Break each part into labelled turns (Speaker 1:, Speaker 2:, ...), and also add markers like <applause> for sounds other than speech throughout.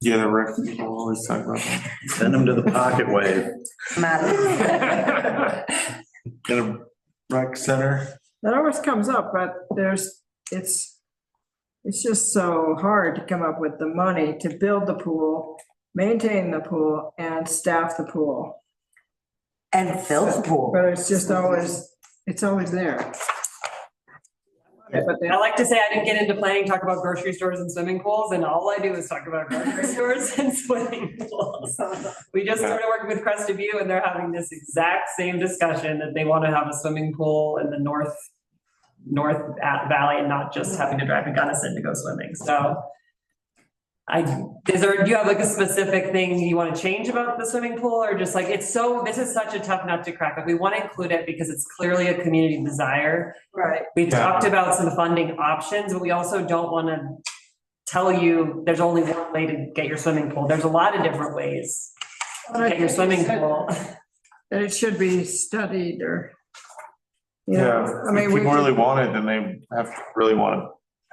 Speaker 1: Yeah, the rec people always talk about that.
Speaker 2: Send them to the pocket wave.
Speaker 1: Get a rec center.
Speaker 3: That always comes up, but there's, it's, it's just so hard to come up with the money to build the pool, maintain the pool, and staff the pool.
Speaker 4: And fill the pool.
Speaker 3: But it's just always, it's always there. But they,
Speaker 5: I like to say I didn't get into planning, talk about grocery stores and swimming pools, and all I do is talk about grocery <laughs> stores and swimming pools. We just started working with Crested View and they're having this exact same discussion that they want to have a swimming pool in the north, north at- valley and not just having to drive to Gunnison to go swimming, so. I, is there, do you have like a specific thing you want to change about the swimming pool or just like, it's so, this is such a tough nut to crack, but we want to include it because it's clearly a community desire.
Speaker 3: right,
Speaker 5: We
Speaker 1: Yeah.
Speaker 5: talked about some funding options, but we also don't want to tell you there's only one way to get your swimming pool. There's a lot of different ways to get your swimming pool.
Speaker 3: that it should be studied or. you know,
Speaker 1: Yeah,
Speaker 3: I mean,
Speaker 1: if
Speaker 3: we,
Speaker 1: people really want it, then they have to really want to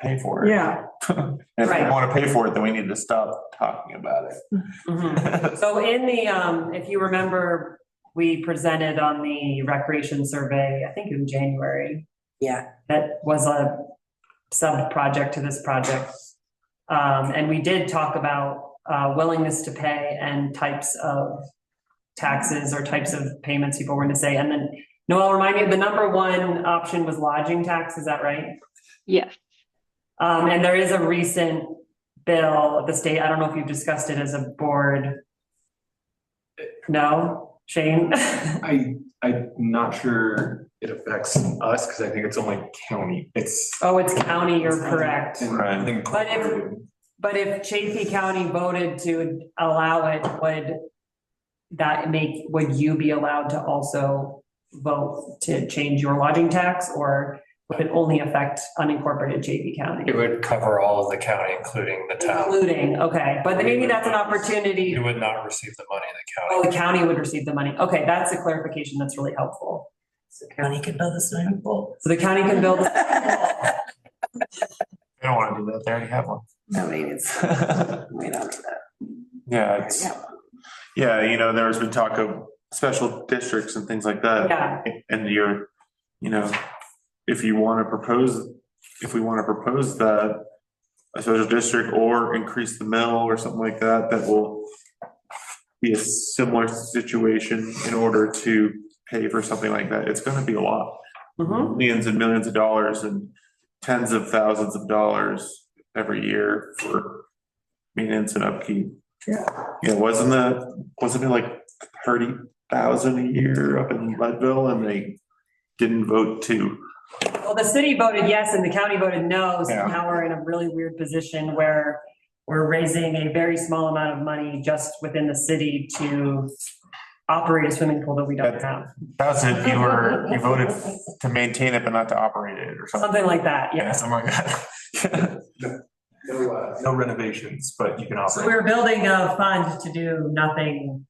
Speaker 1: pay for it.
Speaker 3: yeah,
Speaker 1: And if they
Speaker 5: Right.
Speaker 1: want to pay for it, then we need to stop talking about
Speaker 5: Mhm.
Speaker 1: it.
Speaker 5: So in the, um, if you remember, we presented on the recreation survey, I think in January,
Speaker 4: Yeah,
Speaker 5: that was a sub-project to this project. Um, and we did talk about, uh, willingness to pay and types of taxes or types of payments people were gonna say. And then, Noel, remind me, the number one option was lodging tax, is that right?
Speaker 6: Yes,
Speaker 5: Um, and there is a recent bill of the state, I don't know if you've discussed it as a board. No, Shane? <laughs>
Speaker 7: I, I'm not sure it affects us, because I think it's only county, it's.
Speaker 5: Oh, it's county, you're correct.
Speaker 1: Right.
Speaker 5: But if- But if Chaffey County voted to allow it, would that make, would you be allowed to also vote to change your lodging tax? Or would it only affect unincorporated Chaffey County?
Speaker 8: It would cover all of the county, including the town.
Speaker 5: Including, okay, but then maybe that's an opportunity,
Speaker 8: You would not receive the money in
Speaker 5: oh,
Speaker 8: the
Speaker 5: the county would receive the money. Okay, that's a clarification that's really helpful.
Speaker 4: so county can build a swimming
Speaker 5: <laughs>
Speaker 4: pool.
Speaker 5: So the county can build,
Speaker 1: They don't want to do that. They already have one.
Speaker 4: Nobody needs, we don't need that.
Speaker 1: Yeah, it's, yeah, you know, there's been talk of special districts and things like that.
Speaker 5: yeah,
Speaker 1: And you're, you know, if you want to propose, if we want to propose that a special district or increase the mill or something like that, that will be a similar situation in order to pay for something like that. It's gonna be a lot.
Speaker 5: Mhm.
Speaker 1: Millions and millions of dollars and tens of thousands of dollars every year for maintenance and upkeep.
Speaker 3: Yeah.
Speaker 1: Yeah, wasn't that, wasn't it like thirty thousand a year up in Leadville and they didn't vote to?
Speaker 5: Well, the city voted yes and the county voted no, so
Speaker 1: Yeah.
Speaker 5: now we're in a really weird position where we're raising a very small amount of money just within the city to operate a swimming pool that we don't
Speaker 1: That's-
Speaker 5: have,
Speaker 1: That's if you were, you voted to maintain it but not to operate it or something.
Speaker 5: <laughs> something like that,
Speaker 1: Yeah,
Speaker 5: yeah.
Speaker 1: something
Speaker 7: <laughs>
Speaker 1: like that.
Speaker 7: No uh, no renovations, but you can
Speaker 5: So
Speaker 7: operate.
Speaker 5: we're building a fund to do nothing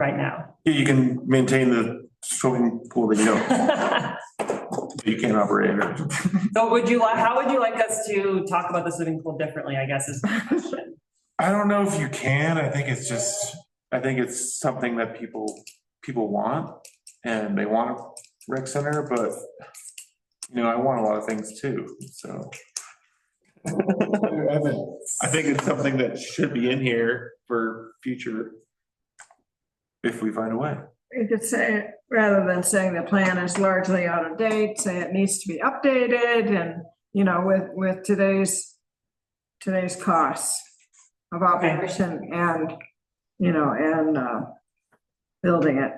Speaker 5: right now. <laughs>
Speaker 1: Yeah, You can maintain the swimming pool that you don't, <laughs> that you can't operate it.
Speaker 5: So would you, li- how would you like us to talk about the swimming pool differently, I guess is the question.
Speaker 1: I don't know if you can. I think it's just, I think it's something that people, people want and they want a rec center, but you know, I want a lot of things too, so. I mean, I think it's something that should be in here for future if we find a way.
Speaker 3: you could say, rather than saying the plan is largely out of date, say it needs to be updated and, you know, with, with today's, today's costs of operation and, you know, and, uh, building it.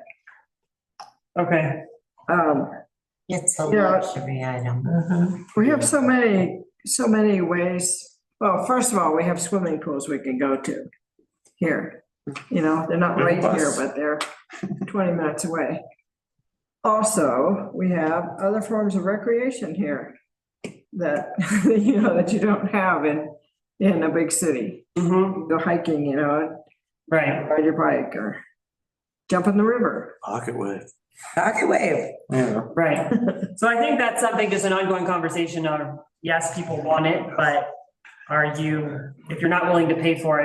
Speaker 5: Okay,
Speaker 3: Um,
Speaker 4: It's a
Speaker 3: Yeah.
Speaker 4: luxury item. Mhm.
Speaker 3: we have so many, so many ways. Well, first of all, we have swimming pools we can go to here. You know, they're not right here, but they're twenty minutes away. Also, we have other forms of recreation here that, <laughs> you know, that you don't have in, in a big city.
Speaker 5: hmm
Speaker 3: Go hiking, you know,
Speaker 5: right.
Speaker 3: ride your bike or jump in the river.
Speaker 2: Pocket wave.
Speaker 4: Pocket wave.
Speaker 1: Yeah.
Speaker 5: Right. So I think that's something, just an ongoing conversation of, yes, people want it, but are you, if you're not willing to pay for it,